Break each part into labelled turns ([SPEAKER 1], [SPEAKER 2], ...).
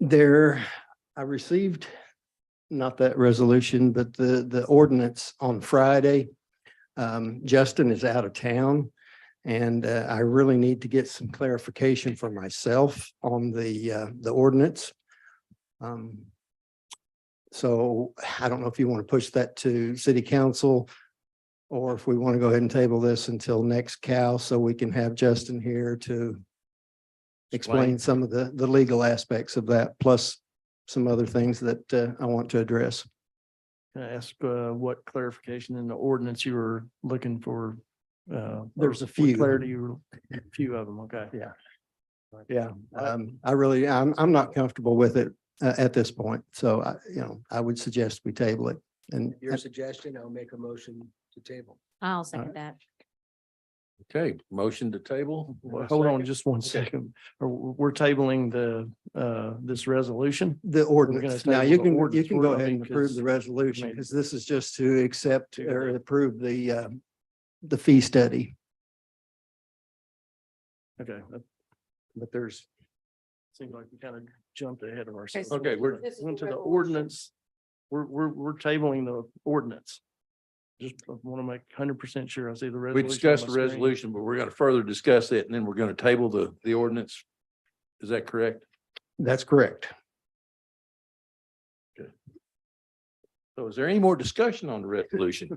[SPEAKER 1] There, I received, not that resolution, but the, the ordinance on Friday. Um, Justin is out of town and uh, I really need to get some clarification for myself on the, uh, the ordinance. Um, So I don't know if you want to push that to city council or if we want to go ahead and table this until next Cal, so we can have Justin here to explain some of the, the legal aspects of that, plus some other things that uh, I want to address.
[SPEAKER 2] Can I ask uh, what clarification in the ordinance you were looking for? uh, or
[SPEAKER 1] There's a
[SPEAKER 2] what
[SPEAKER 1] few.
[SPEAKER 2] Clarity, you were- a few of them, okay.
[SPEAKER 1] Yeah. Yeah. Um, I really, I'm, I'm not comfortable with it uh, at this point, so I, you know, I would suggest we table it. And
[SPEAKER 3] Your suggestion, I'll make a motion to table.
[SPEAKER 4] I'll second that.
[SPEAKER 5] Okay, motion to table.
[SPEAKER 2] Well, Hold on just one second. Are- We're tabling the, uh, this resolution.
[SPEAKER 1] the ordinance, now
[SPEAKER 2] table
[SPEAKER 1] you
[SPEAKER 2] the
[SPEAKER 1] can, you
[SPEAKER 2] ordinance.
[SPEAKER 1] can
[SPEAKER 2] We're
[SPEAKER 1] go
[SPEAKER 2] not
[SPEAKER 1] ahead
[SPEAKER 2] being
[SPEAKER 1] and approve the
[SPEAKER 2] cons-
[SPEAKER 1] resolution,
[SPEAKER 2] made.
[SPEAKER 1] because this is just to accept or approve the, uh, the fee study.
[SPEAKER 2] Okay. but- But there's, seems like we kind of jumped ahead of ourselves.
[SPEAKER 5] Okay, we're-
[SPEAKER 4] This is
[SPEAKER 2] Went to
[SPEAKER 4] the
[SPEAKER 2] the
[SPEAKER 4] resolution.
[SPEAKER 2] ordinance. We're, we're, we're tabling the ordinance. Just want to make hundred percent sure I see the
[SPEAKER 5] We
[SPEAKER 2] resolution. on
[SPEAKER 5] discussed the
[SPEAKER 2] my screen.
[SPEAKER 5] resolution, but we're gonna further discuss it and then we're gonna table the, the ordinance. Is that correct?
[SPEAKER 1] That's correct.
[SPEAKER 5] So is there any more discussion on the resolution,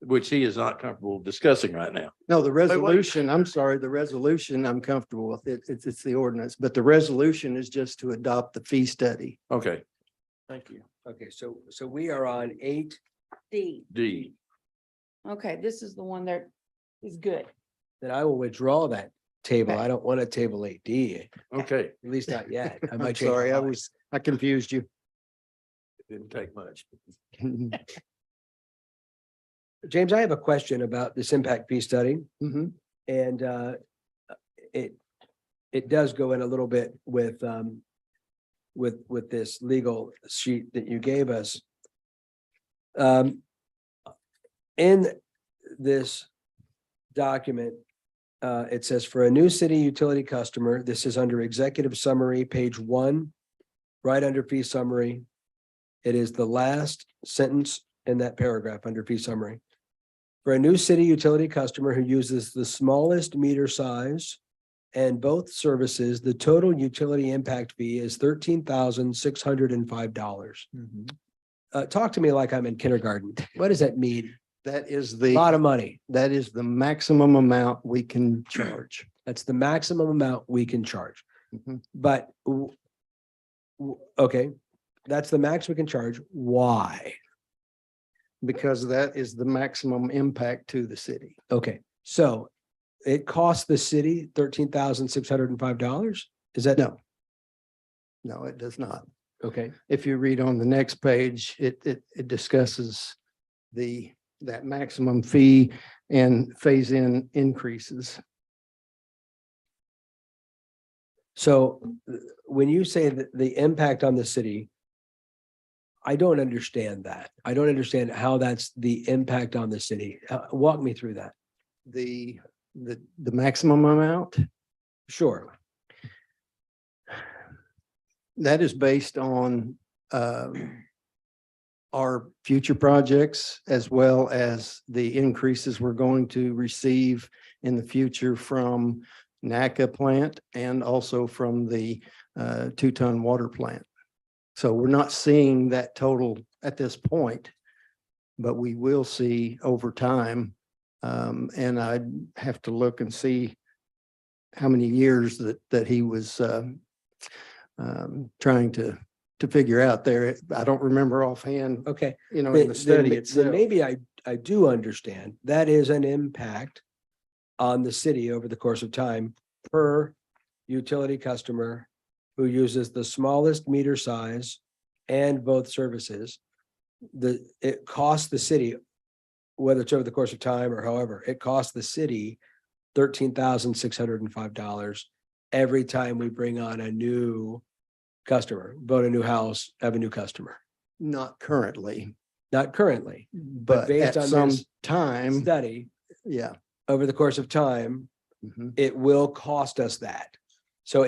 [SPEAKER 5] which he is not comfortable discussing right now?
[SPEAKER 1] No, the resolution, I'm sorry, the resolution I'm comfortable with. It, it's, it's the ordinance, but the resolution is just to adopt the fee study.
[SPEAKER 5] Okay,
[SPEAKER 2] Thank you.
[SPEAKER 3] Okay, so, so we are on eight.
[SPEAKER 6] D.
[SPEAKER 5] D,
[SPEAKER 6] Okay, this is the one that is good.
[SPEAKER 3] Then I will withdraw that table.
[SPEAKER 6] Okay.
[SPEAKER 3] I don't want to table eight D, at
[SPEAKER 5] okay,
[SPEAKER 3] least not yet. I might
[SPEAKER 1] I'm
[SPEAKER 3] change my
[SPEAKER 1] sorry, I
[SPEAKER 3] mind.
[SPEAKER 1] was, I confused you.
[SPEAKER 5] didn't take much.
[SPEAKER 1] Mhm.
[SPEAKER 3] James, I have a question about this impact fee study and uh, it, it does go in a little bit with um, with, with this legal sheet that you gave us. Um, in this document, uh, it says for a new city utility customer, this is under executive summary, page one, right under fee summary. It is the last sentence in that paragraph under fee summary. For a new city utility customer who uses the smallest meter size and both services, the total utility impact fee is thirteen thousand six hundred and five dollars. Uh, talk to me like I'm in kindergarten. What does that mean?
[SPEAKER 1] That is
[SPEAKER 3] A Lot
[SPEAKER 1] the,
[SPEAKER 3] of money.
[SPEAKER 1] that is the maximum amount we can charge.
[SPEAKER 3] That's the maximum amount we can charge,
[SPEAKER 1] Mhm.
[SPEAKER 3] but w- w- okay, that's the max we can charge. Why?
[SPEAKER 1] Because that is the maximum impact to the city.
[SPEAKER 3] Okay, so it costs the city thirteen thousand six hundred and five dollars? Is that?
[SPEAKER 1] No. No, it does not.
[SPEAKER 3] Okay,
[SPEAKER 1] if you read on the next page, it, it, it discusses the, that maximum fee and phase-in increases.
[SPEAKER 3] so th- when you say that the impact on the city, I don't understand that. I don't understand how that's the impact on the city. Uh, Walk me through that.
[SPEAKER 1] The, the, the maximum amount,
[SPEAKER 3] Sure,
[SPEAKER 1] that is based on, um, our future projects as well as the increases we're going to receive in the future from NACA plant and also from the uh, two-ton water plant. So we're not seeing that total at this point, but we will see over time. Um, And I'd have to look and see how many years that, that he was uh, um, trying to, to figure out there. I don't remember offhand,
[SPEAKER 3] okay.
[SPEAKER 1] you know,
[SPEAKER 3] Then-
[SPEAKER 1] in the
[SPEAKER 3] then
[SPEAKER 1] study
[SPEAKER 3] ma- then
[SPEAKER 1] itself.
[SPEAKER 3] Maybe I, I do understand. That is an impact on the city over the course of time per utility customer who uses the smallest meter size and both services. The, it costs the city, whether it's over the course of time or however, it costs the city thirteen thousand six hundred and five dollars every time we bring on a new customer, build a new house, have a new customer,
[SPEAKER 1] Not currently,
[SPEAKER 3] not currently
[SPEAKER 1] but
[SPEAKER 3] based
[SPEAKER 1] at
[SPEAKER 3] on
[SPEAKER 1] some
[SPEAKER 3] this
[SPEAKER 1] time,
[SPEAKER 3] study
[SPEAKER 1] yeah.
[SPEAKER 3] over the course of time,
[SPEAKER 1] mhm.
[SPEAKER 3] it will cost us that. So